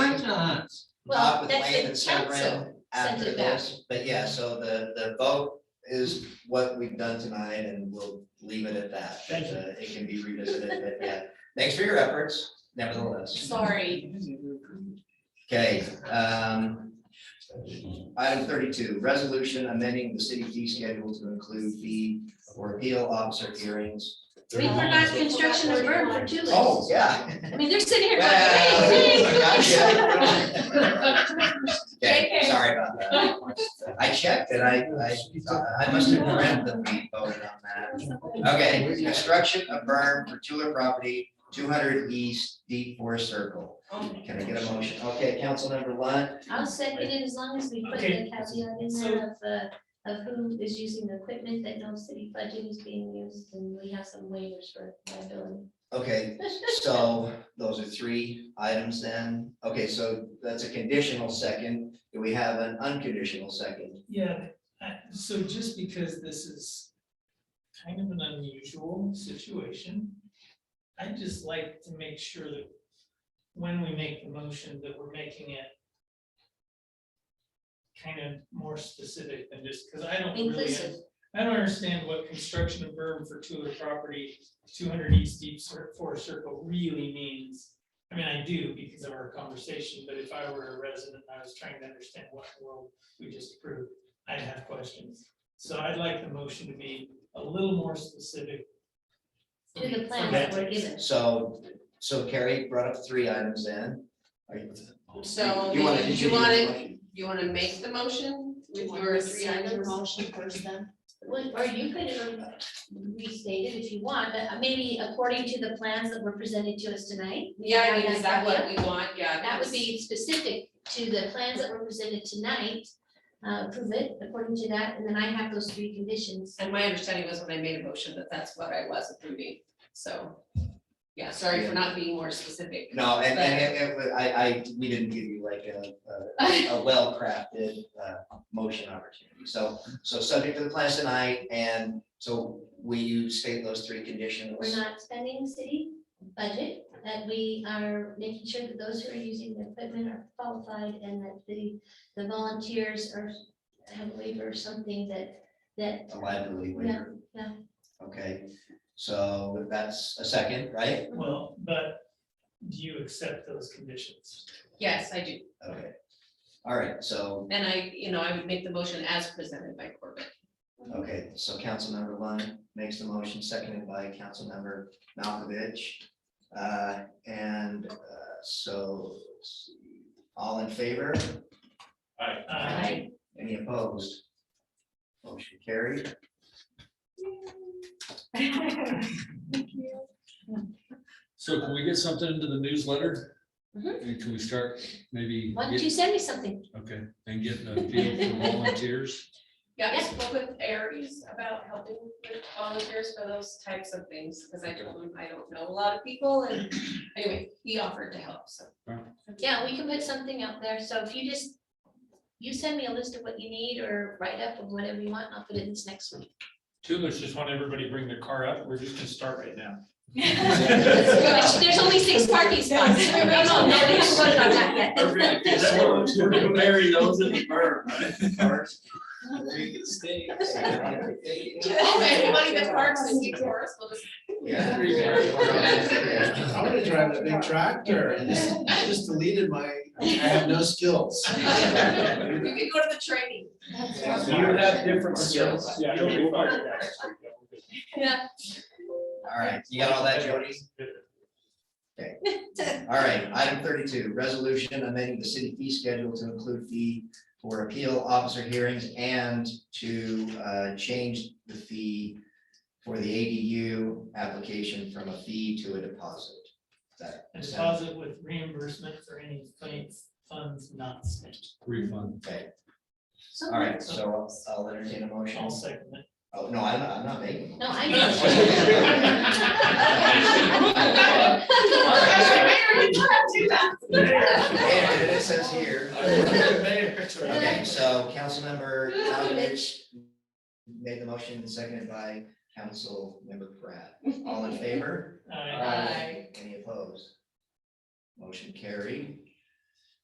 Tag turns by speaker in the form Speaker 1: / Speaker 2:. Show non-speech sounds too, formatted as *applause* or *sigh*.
Speaker 1: times.
Speaker 2: Bob
Speaker 3: Well,
Speaker 2: with
Speaker 3: that's
Speaker 2: Lane and
Speaker 3: the council.
Speaker 2: Severin after
Speaker 3: it back.
Speaker 2: this, but yeah, so the, the vote is what we've done tonight and we'll leave it at that.
Speaker 1: Thank you.
Speaker 2: Uh, It can be revisited, but yeah, thanks for your efforts nevertheless.
Speaker 3: Sorry.
Speaker 2: Okay, um, item thirty-two, resolution amending the city fee schedule to include fee or appeal officer hearings.
Speaker 3: We forgot construction of burn for two
Speaker 2: Oh, yeah.
Speaker 3: I mean, they're sitting here going,
Speaker 2: Well, *laughs*
Speaker 3: hey, hey.
Speaker 2: gotcha. Okay,
Speaker 3: JK.
Speaker 2: sorry about that. I checked and I, I, I must have read that we voted on that. Okay, construction of berm for Tula property, two hundred east deep forest circle. Can I get a motion? Okay, council member Lund,
Speaker 3: I'll second it as long as we put
Speaker 1: Okay.
Speaker 3: the caveat in there of, uh, of who is using the equipment, that no city budget is being used, and we have some waivers for liability. *laughs*
Speaker 2: okay, so those are three items then. Okay, so that's a conditional second. Do we have an unconditional second?
Speaker 1: Yeah, uh, so just because this is kind of an unusual situation, I'd just like to make sure that when we make the motion, that we're making it kind of more specific than just, because I don't really,
Speaker 3: Inclusive.
Speaker 1: I don't understand what construction of berm for two of the property, two hundred east deep Cir- forest circle really means. I mean, I do because of our conversation, but if I were a resident, and I was trying to understand what in the world we just approved, I'd have questions. So I'd like the motion to be a little more specific.
Speaker 3: To the plans that were given.
Speaker 2: So, so Carrie brought up three items then. Are you-
Speaker 4: So,
Speaker 2: You wanna-
Speaker 4: you
Speaker 2: you
Speaker 4: wanna, you wanna make the motion
Speaker 5: Do
Speaker 4: with
Speaker 5: you want
Speaker 4: your
Speaker 5: to
Speaker 4: three
Speaker 5: rescind your
Speaker 4: items?
Speaker 5: motion first then?
Speaker 3: Well, Or you could um, restate it if you want, but uh, maybe according to the plans that were presented to us tonight.
Speaker 4: Yeah, I mean, is that what we want? Yeah.
Speaker 3: That would
Speaker 4: because-
Speaker 3: be specific to the plans that were presented tonight, uh, prove it according to that, and then I have those three conditions.
Speaker 4: And my understanding was when I made a motion that that's what I was approving, so. Yeah, sorry for not being more specific. *laughs*
Speaker 2: No, and, and it- it, wa- I, I, we didn't give you like a, a, a well-crafted, uh, motion opportunity. So, so subject to the plans tonight, and so will you state those three conditions?
Speaker 3: We're not spending city budget, that we are making sure that those who are using the equipment are qualified and that the, the volunteers are, have a waiver or something that, that,
Speaker 2: A liability waiver.
Speaker 3: Yeah,
Speaker 2: Okay, so that's a second, right?
Speaker 1: Well, but do you accept those conditions?
Speaker 4: Yes, I do,
Speaker 2: Okay. All right, so,
Speaker 4: and I, you know, I would make the motion as presented by *laughs* Corbett.
Speaker 2: okay, so Councilmember Lund makes the motion, seconded by Councilmember Malkovich. Uh, and, uh, so, let's see. all in favor?
Speaker 1: Uh,
Speaker 2: Any opposed? Motion carried.
Speaker 6: So can we get something into the newsletter?
Speaker 3: Mhm.
Speaker 6: And can we start maybe,
Speaker 3: why don't
Speaker 6: get-
Speaker 3: you send me something?
Speaker 6: okay, and get a feel for volunteers?
Speaker 4: Yeah, I spoke with Aries about helping with volunteers for those types of things, because I told him I don't know a lot of people, and anyway, he offered to help, so.
Speaker 3: Yeah, we can put something out there, so if you just, you send me a list of what you need or write up of whatever you want, and I'll put it in this next week. *laughs*
Speaker 7: Toolers just want everybody to bring their car up, we're just gonna start right now.
Speaker 3: Which, There's only six parking spots. No, no, no, we haven't voted on that yet.
Speaker 7: We're gonna bury those in the burn.
Speaker 4: Oh, Anybody that parks in Deep Forest will just.
Speaker 2: Yeah.
Speaker 8: I'm gonna drive that big tractor and just, I just deleted my, I have no skills.
Speaker 4: You can go to the training.
Speaker 7: You have different skills. Yeah. you'll be fine.
Speaker 3: Yeah.
Speaker 2: All right, you got all that, Jody? All right, item thirty-two, resolution amending the city fee schedule to include fee for appeal officer hearings and to uh, change the fee for the ADU application from a fee to a deposit. That-
Speaker 1: A deposit with reimbursement for any funds, funds not spent.
Speaker 6: Refund.
Speaker 2: Okay,
Speaker 3: So-
Speaker 2: all right, so I'll- I'll entertain a motion.
Speaker 1: I'll second it.
Speaker 2: Oh, no, I'm not, I'm not making.
Speaker 3: No, I *laughs* *laughs*
Speaker 4: Mayor, you can't do that.
Speaker 2: And it says here.
Speaker 1: *laughs* Uh,
Speaker 2: Okay, so Councilmember Malovich made the motion, seconded by Councilmember Pratt.
Speaker 1: *laughs*
Speaker 2: All in favor?
Speaker 1: I-
Speaker 4: Aye.
Speaker 2: Any opposed? Motion carried.